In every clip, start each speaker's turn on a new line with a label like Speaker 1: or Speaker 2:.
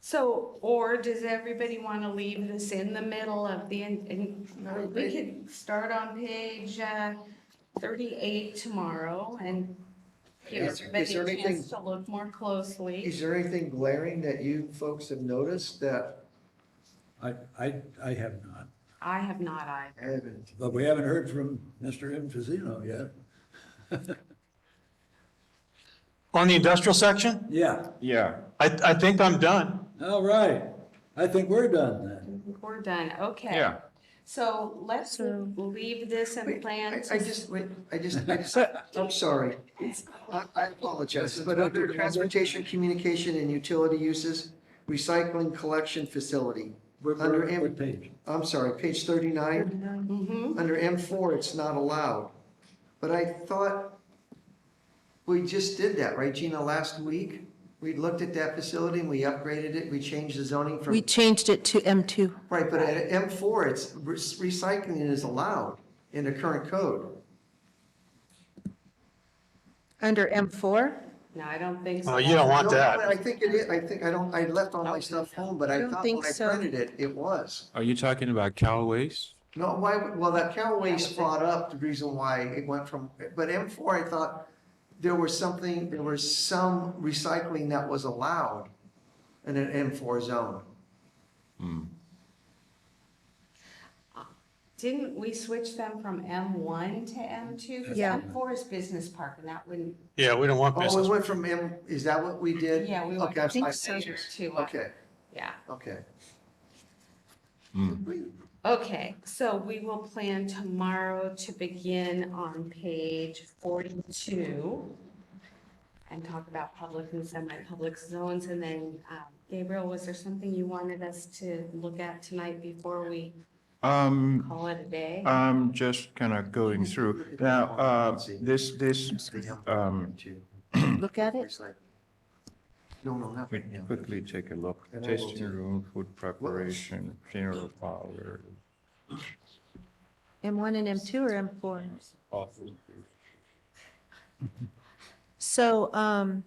Speaker 1: So, or does everybody want to leave this in the middle of the, and- and we could start on page uh, thirty-eight tomorrow and give
Speaker 2: Is- is
Speaker 1: everybody
Speaker 2: there
Speaker 1: a
Speaker 2: anything-
Speaker 1: chance to look more closely.
Speaker 2: Is there anything glaring that you folks have noticed that
Speaker 3: I, I, I have not,
Speaker 1: I have not either.
Speaker 2: I haven't?
Speaker 3: but we haven't heard from Mr. Infizino yet.
Speaker 4: On the industrial section,
Speaker 3: Yeah,
Speaker 5: Yeah,
Speaker 4: I, I think I'm done.
Speaker 3: all right. I think we're done then.
Speaker 1: We're done, okay.
Speaker 5: yeah.
Speaker 1: So let's leave this and
Speaker 2: Wait, I
Speaker 1: plan
Speaker 2: I
Speaker 1: to
Speaker 2: just, wait, I just, I just, I'm sorry. I, I apologize, but under transportation, communication and utility uses, recycling collection facility.
Speaker 3: We're,
Speaker 2: Under
Speaker 3: we're,
Speaker 2: M-
Speaker 3: what page?
Speaker 2: I'm sorry, page thirty-nine,
Speaker 1: mm-hmm.
Speaker 2: under M four, it's not allowed. But I thought we just did that, right, Gina, last week? We looked at that facility and we upgraded it, we changed the zoning from.
Speaker 6: We changed it to M2.
Speaker 2: Right, but at M four, it's, re- recycling is allowed in the current code.
Speaker 6: Under M4?
Speaker 1: No, I don't think so.
Speaker 4: Oh, you don't want
Speaker 2: No, no, I
Speaker 4: that.
Speaker 2: think it is, I think, I don't, I left all my stuff home, but
Speaker 6: I
Speaker 2: I
Speaker 6: don't
Speaker 2: thought
Speaker 6: think
Speaker 2: when I
Speaker 6: so.
Speaker 2: printed it, it was.
Speaker 5: Are you talking about cow waste?
Speaker 2: No, why, would- well, that Callaway's brought up the reason why it went from, but M four, I thought there was something, there was some recycling that was allowed in an M four zone.
Speaker 1: Didn't we switch them from M one to M two? Because
Speaker 6: Yeah.
Speaker 1: M four is business park and that wouldn't,
Speaker 4: Yeah, we don't want
Speaker 2: Oh,
Speaker 4: business.
Speaker 2: it went from M, is that what we did?
Speaker 1: Yeah, we went-
Speaker 2: Uh, Okay,
Speaker 1: I
Speaker 6: think
Speaker 2: I-
Speaker 6: so.
Speaker 1: to, uh,
Speaker 2: Okay,
Speaker 1: yeah.
Speaker 2: okay.
Speaker 1: Okay, so we will plan tomorrow to begin on page forty-two and talk about public and semi-public zones, and then, um, Gabriel, was there something you wanted us to look at tonight before we
Speaker 5: Um,
Speaker 1: call it a day?
Speaker 5: I'm just kind of going through. Now, uh, this, this, um,
Speaker 2: Two.
Speaker 6: Look at it.
Speaker 2: It's like- No, no, not
Speaker 5: we
Speaker 2: right now.
Speaker 5: quickly take a look.
Speaker 2: And I will
Speaker 5: Tasting
Speaker 2: do-
Speaker 5: room, food preparation, funeral parlor.
Speaker 6: M1 and M2 or M4?
Speaker 5: office.
Speaker 6: So um,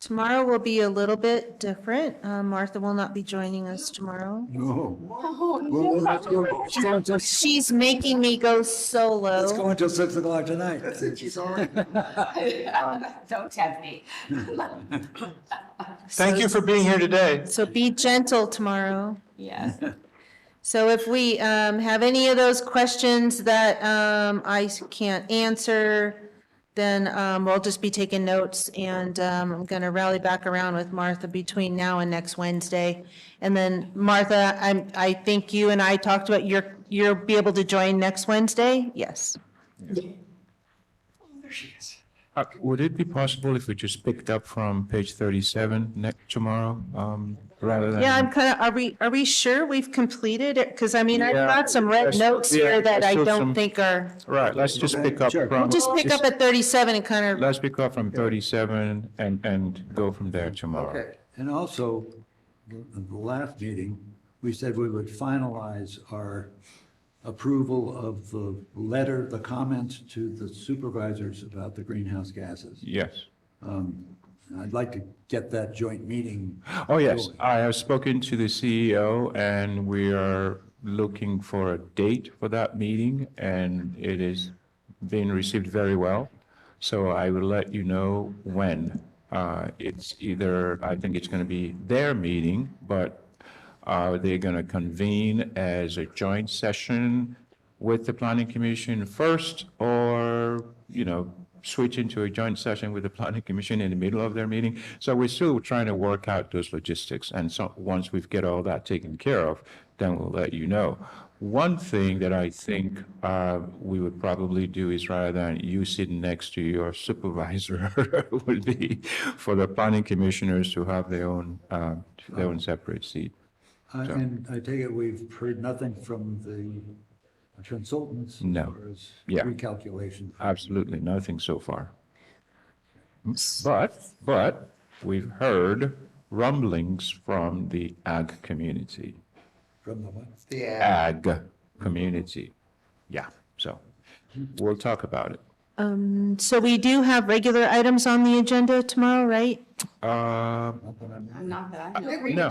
Speaker 6: tomorrow will be a little bit different. Uh, Martha will not be joining us tomorrow.
Speaker 3: No.
Speaker 1: Oh,
Speaker 3: We'll, we'll have to go, it's going till- it's
Speaker 6: She's making me go solo.
Speaker 3: going till six o'clock tonight.
Speaker 2: That's it, she's already.
Speaker 1: Don't tempt me.
Speaker 4: Thank you for being here today.
Speaker 6: So be gentle tomorrow.
Speaker 1: Yes,
Speaker 6: So if we um, have any of those questions that um, I can't answer, then um, we'll just be taking notes, and um, I'm going to rally back around with Martha between now and next Wednesday. And then Martha, I, I think you and I talked about you're, you'll be able to join next Wednesday? Yes.
Speaker 5: Uh, Would it be possible if we just picked up from page 37 next tomorrow, um, rather than?
Speaker 6: Yeah, I'm kind of, are we, are we sure we've completed it? Because I mean, I've
Speaker 5: Yeah.
Speaker 6: got some red
Speaker 5: Yes,
Speaker 6: notes
Speaker 5: yeah,
Speaker 6: here that
Speaker 5: I
Speaker 6: I
Speaker 5: saw
Speaker 6: don't
Speaker 5: some-
Speaker 6: think are,
Speaker 5: Right, let's just pick up
Speaker 3: Sure.
Speaker 5: from.
Speaker 6: we'll just pick up at 37 and kind of
Speaker 5: Let's pick up from 37 and, and go from there tomorrow.
Speaker 2: Okay,
Speaker 3: And also, the the last meeting, we said we would finalize our approval of the letter, the comments to the supervisors about the greenhouse gases.
Speaker 5: Yes.
Speaker 3: And I'd like to get that joint meeting.
Speaker 5: Oh, yes.
Speaker 3: going.
Speaker 5: I have spoken to the CEO and we are looking for a date for that meeting and it is being received very well. So I will let you know when. Uh, It's either, I think it's going to be their meeting, but are they going to convene as a joint session with the planning commission first or, you know, switch into a joint session with the planning commission in the middle of their meeting? So we're still trying to work out those logistics. And so, once we've get all that taken care of, then we'll let you know. One thing that I think uh, we would probably do is rather than you sitting next to your supervisor would be for the planning commissioners to have their own, uh, their own separate seat.
Speaker 3: I- And I take it we've heard nothing from the consultants?
Speaker 5: No.
Speaker 3: as far as
Speaker 5: Yeah.
Speaker 3: Recalculation.
Speaker 5: Absolutely nothing so far. But, but we've heard rumblings from the ag community,
Speaker 3: From the what?
Speaker 5: Uh,
Speaker 2: yeah.
Speaker 5: ag community. Yeah, so we'll talk about it.
Speaker 6: Um, so we do have regular items on the agenda tomorrow, right?
Speaker 5: Um,
Speaker 1: not that I know.
Speaker 2: I think we
Speaker 5: No.